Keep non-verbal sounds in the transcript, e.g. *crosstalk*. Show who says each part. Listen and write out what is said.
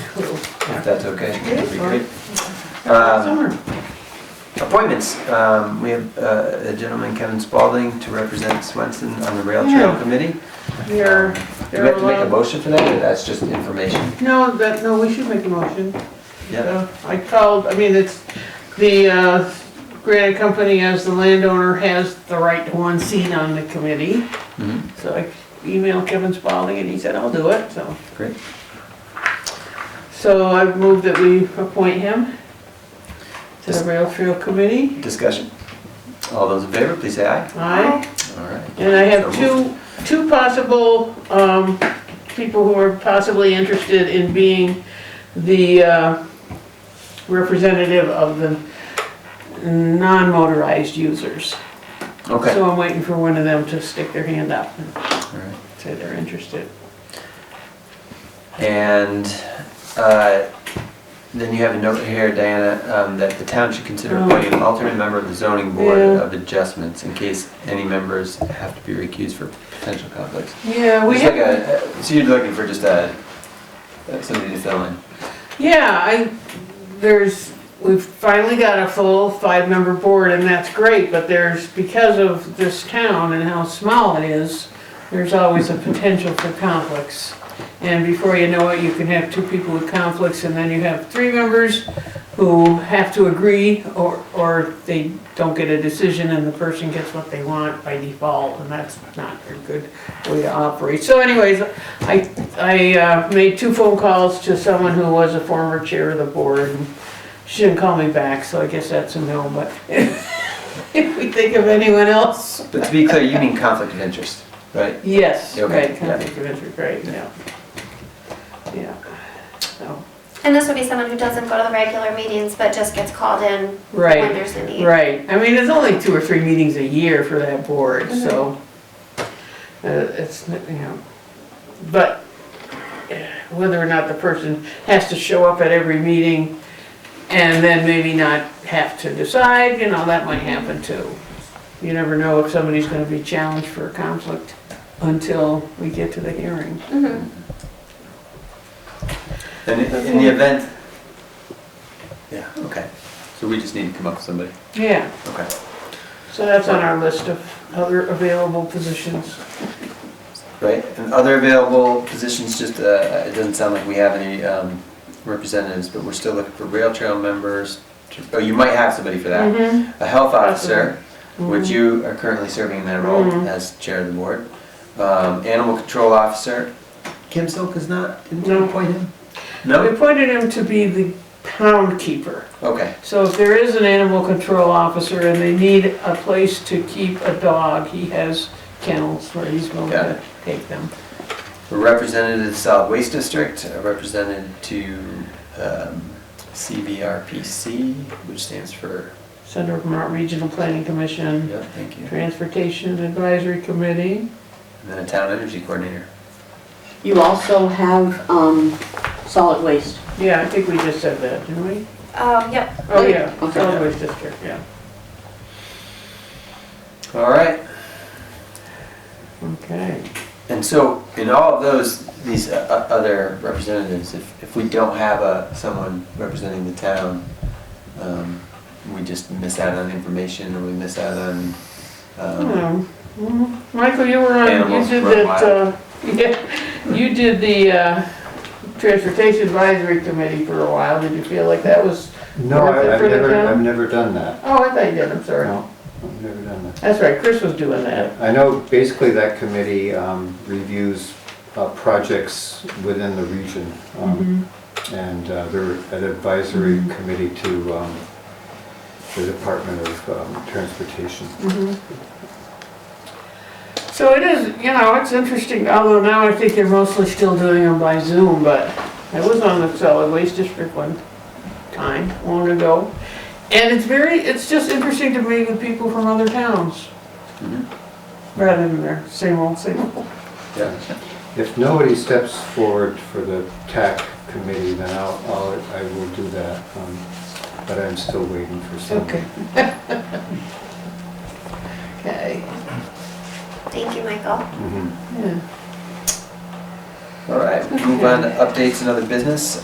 Speaker 1: if that's okay.
Speaker 2: It is fine.
Speaker 1: Um, Appointments, Um, we have uh, a gentleman, Kevin Spalding, to represent Swenson on the Rail Trail
Speaker 2: Yeah.
Speaker 1: Committee.
Speaker 2: You're,
Speaker 1: Do we have to make a
Speaker 2: allowed-
Speaker 1: motion for that, or that's just information?
Speaker 2: no, that, no, we should make a motion.
Speaker 1: Yeah,
Speaker 2: Uh, I called, I mean, it's, the uh, granite company as the landowner has the right to one seat on the committee.
Speaker 1: Mhm.
Speaker 2: So I emailed Kevin Spalding and he said, I'll do it, so.
Speaker 1: great.
Speaker 2: So I moved that we appoint him to the rail trail committee.
Speaker 1: Discussion? All those in favor, please say aye.
Speaker 2: Aye.
Speaker 1: All right.
Speaker 2: And I have
Speaker 1: So
Speaker 2: two, two possible um, people who are possibly interested in being the uh, representative of the non-motorized users.
Speaker 1: Okay, all
Speaker 2: So I'm waiting for one of them to stick their hand up and
Speaker 1: right.
Speaker 2: say they're interested.
Speaker 1: And uh, then you have a note here, Diana, um, that the town should consider
Speaker 2: Oh.
Speaker 1: appointing an alternate member of the zoning board
Speaker 2: Yeah.
Speaker 1: of adjustments in case any members have to be recused for potential conflicts.
Speaker 2: Yeah, we
Speaker 1: It's like
Speaker 2: have,
Speaker 1: a, uh, so you're looking for just a, uh, somebody to fill in?
Speaker 2: yeah, I, there's, we've finally got a full five-member board and that's great, but there's, because of this town and how small it is, there's always a potential for conflicts. And before you know it, you can have two people with conflicts, and then you have three members who have to agree, or, or they don't get a decision, and the person gets what they want by default, and that's not a good way to operate. So anyways, I, I uh, made two phone calls to someone who was a former chair of the board, and she didn't call me back, so I guess that's a no, but *laughs* if we think of anyone else,
Speaker 1: But to be clear, you mean conflict of interest, right?
Speaker 2: yes,
Speaker 1: Okay,
Speaker 2: right,
Speaker 1: yeah.
Speaker 2: conflict of interest, right, yeah. Yeah, so,
Speaker 3: And this would be someone who doesn't go to the regular meetings, but just gets called in when
Speaker 2: right,
Speaker 3: there's a need.
Speaker 2: right. I mean, there's only two or three meetings a year for that board, so uh, it's, you know, but uh, whether or not the person has to show up at every meeting and then maybe not have to decide, you know, that might happen too. You never know if somebody's gonna be challenged for a conflict until we get to the hearing.
Speaker 3: Mhm.
Speaker 1: And i- in the event, yeah, okay. So we just need to come up with somebody,
Speaker 2: Yeah.
Speaker 1: okay.
Speaker 2: So that's on our list of other available positions.
Speaker 1: Right, and other available positions, just, uh, it doesn't sound like we have any um, representatives, but we're still looking for rail trail members. to- Oh, you might have somebody for that.
Speaker 2: Mhm.
Speaker 1: A health officer,
Speaker 2: Mhm.
Speaker 1: which you are currently serving in that role
Speaker 2: Mhm.
Speaker 1: as chair of the board. Um, Animal control officer, Kim Silk is not, didn't you
Speaker 2: No.
Speaker 1: appoint him?
Speaker 2: We
Speaker 1: No?
Speaker 2: appointed him to be the pound keeper.
Speaker 1: Okay,
Speaker 2: So if there is an animal control officer and they need a place to keep a dog, he has kennels where he's going
Speaker 1: Got
Speaker 2: to
Speaker 1: it.
Speaker 2: take them.
Speaker 1: a representative to the solid waste district, a representative to um, CVRPC, which stands for,
Speaker 2: Center of Vermont Regional Planning Commission,
Speaker 1: yeah, thank you.
Speaker 2: Transportation Advisory Committee.
Speaker 1: And then a town energy coordinator.
Speaker 4: You also have um, solid waste.
Speaker 2: Yeah, I think we just said that, didn't we?
Speaker 3: Um, yep,
Speaker 2: Oh, yeah,
Speaker 4: Okay.
Speaker 2: solid waste district, yeah.
Speaker 1: All right,
Speaker 2: Okay.
Speaker 1: And so, in all of those, these uh, uh, other representatives, if, if we don't have a, someone representing the town, um, we just miss out on information, or we miss out on, um,
Speaker 2: Hmm. Mhm. Michael, you were on, you
Speaker 1: Animals
Speaker 2: did
Speaker 1: run
Speaker 2: that, uh, *laughs* yeah, you did the uh, Transportation Advisory Committee for a while. Did you feel like that was,
Speaker 5: No,
Speaker 2: Is it
Speaker 5: I- I've
Speaker 2: for the
Speaker 5: never,
Speaker 2: town?
Speaker 5: I've never done that.
Speaker 2: oh, I thought you did, I'm sorry.
Speaker 5: No, I've never done that.
Speaker 2: That's right, Chris was doing that.
Speaker 5: I know basically that committee um, reviews uh, projects within the region.
Speaker 2: Mm-hmm.
Speaker 5: um, And uh, they're an advisory committee to um, the Department of um, Transportation.
Speaker 2: So it is, you know, it's interesting, although now I think they're mostly still doing them by Zoom, but I was on the solid waste district one time, long ago. And it's very, it's just interesting to meet with people from other towns.
Speaker 1: Mhm.
Speaker 2: Rather than their same old, same old.
Speaker 1: yeah.
Speaker 5: If nobody steps forward for the TAC committee, then I'll, I'll- I will do that. um, But I'm still waiting for
Speaker 2: Okay.
Speaker 5: someone.
Speaker 2: *laughs* Okay,
Speaker 3: thank you, Michael.
Speaker 5: Mhm.
Speaker 2: yeah.
Speaker 1: All right, move on to updates and other business.